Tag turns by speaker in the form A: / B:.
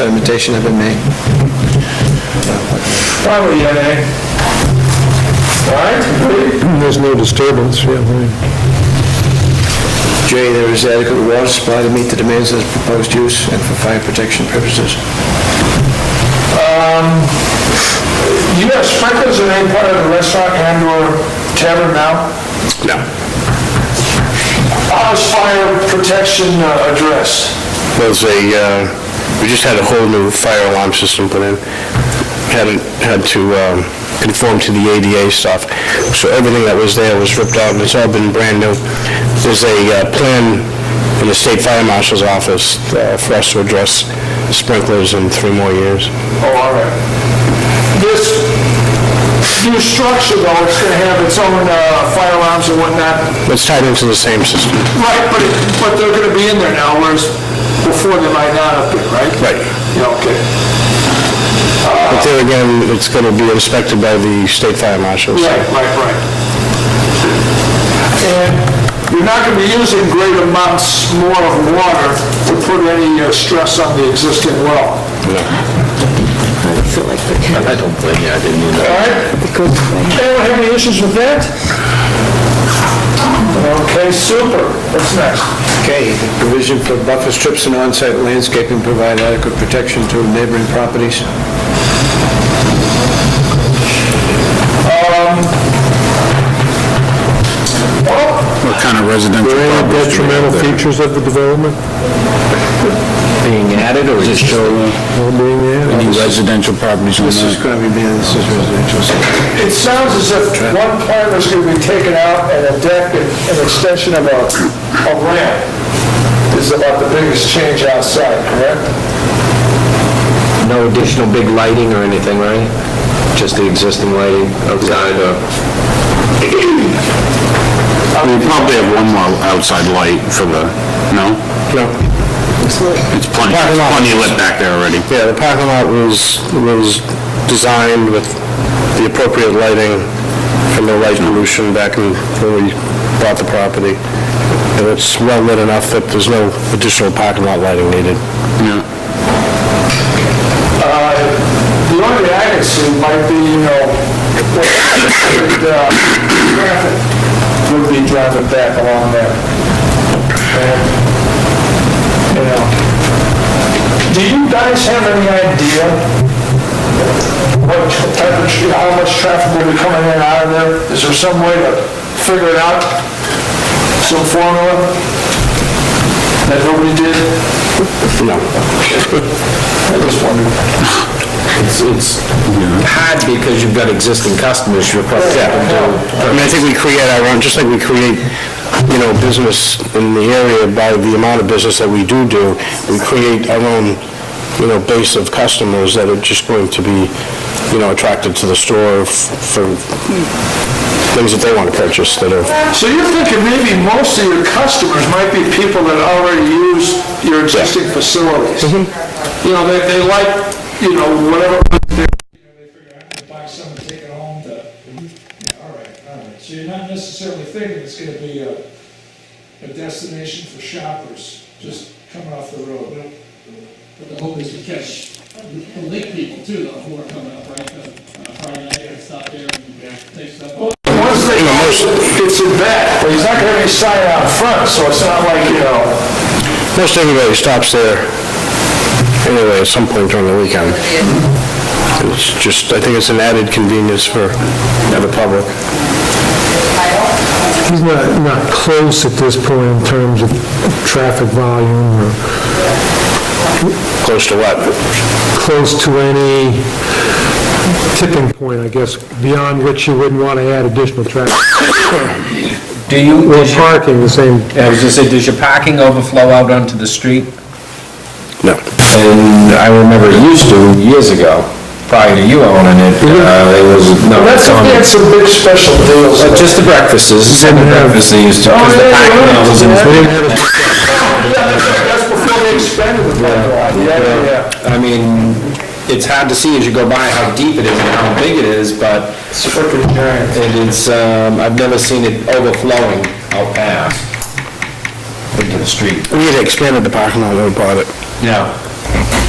A: sedimentation have been made.
B: Probably, yeah, eh? All right?
C: Mm, There's no disturbance, yeah. right.
A: J, there is adequate water supply to meet the demands of the proposed use and for fire protection purposes.
B: Do you have sprinklers in any part of the restaurant and/or tavern now?
A: No.
B: How is fire protection uh, addressed?
D: There's a, uh, we just had a whole new fire alarm system put in. Hadn't had to um, conform to the ADA stuff. So everything that was there was ripped out, and it's all been brand new. There's a uh, plan in the State Fire Marshal's office uh, for us to address sprinklers in three more years.
B: Oh, all right. This new structure, though, it's going to have its own uh, fire alarms and whatnot.
D: It's tied into the same system.
B: Right, but, it- but they're going to be in there now, whereas before they might not have been, right?
D: Right.
B: Yeah, okay.
D: But there again, it's going to be inspected by the State Fire Marshal. so-
B: Right, right, right. And you're not going to be using great amounts more of water to put any uh, stress on the existing well.
E: I feel like we can,
A: I don't blame you, I didn't mean
B: All
A: that.
B: right?
E: it goes away.
B: Anyone have any issues with that? Okay, super. What's next?
A: K, provision for buffer strips and on-site landscaping provide adequate protection to neighboring properties.
F: What kind of residential
C: Were any
F: properties do you
C: detrimental
F: have there?
C: features of the development
F: Being added or just show
C: all being there?
F: any residential properties on
A: This is
F: that?
A: going to be, man, this is residential.
B: It sounds as if one part was going to be taken out and a deck and an extension of a, a ramp is about the biggest change outside, correct?
A: No additional big lighting or anything, right? Just the existing lighting outside or...
F: We probably have one more outside light for the, no?
D: No.
F: It's plenty,
D: Parking lot.
F: plenty lit back there already.
D: Yeah, the parking lot was, was designed with the appropriate lighting and no light pollution back in, when we bought the property. And it's well lit enough that there's no additional parking lot lighting needed.
F: Yeah.
B: The only thing I can see might be, you know, what, uh, traffic would be driving back along there. And, you know, do you guys have any idea what type of, tr- how much traffic will be coming in and out of there? Is there some way to figure it out? Some formula that nobody did?
D: No.
B: I just wondered.
A: It's, it's hard because you've got existing customers, you're probably...
D: I mean, I think we create our own, just like we create, you know, business in the area by the amount of business that we do do, we create our own, you know, base of customers that are just going to be, you know, attracted to the store f- for things that they want to purchase that are
B: So you're thinking maybe most of your customers might be people that already use your existing facilities?
D: Mm-hmm.
B: You know, they, they like, you know, whatever,
G: buy some and take it home to, yeah, all right, all right. So you're not necessarily thinking it's gonna be a, a destination for shoppers, just coming off the road.
H: But the hope is to catch the lake people too, though, who are coming up, right, on Friday night, and stop there and take stuff up.
B: once they, it's in back, but he's not gonna have any sign out front, so it's not like, you know,
D: Most everybody stops there anyway at some point during the weekend. It's just, I think it's an added convenience for the public.
C: He's not, not close at this point in terms of traffic volume or
D: Close to what?
C: close to any tipping point, I guess, beyond which you wouldn't want to add additional traffic.
I: Do you,
C: Or
I: does your-
C: parking, the same,
I: I was gonna say, does your parking overflow out onto the street?
D: No.
I: And I remember it used to years ago, prior to you owning it, uh, it was, no,
B: that's
I: it's
B: if
I: on,
B: they had some big special deals.
I: but just the breakfasts, it's in the breakfast they used to,
B: Oh,
I: because the parking lot was in the
B: Yeah, that's that's before they expanded the parking lot, yeah, yeah, yeah.
I: I mean, it's hard to see as you go by how deep it is and how big it is, but
B: It's freaking giant.
I: it is, um, I've never seen it overflowing out past into the street.
D: We had expanded the parking lot, we bought it.
I: Yeah.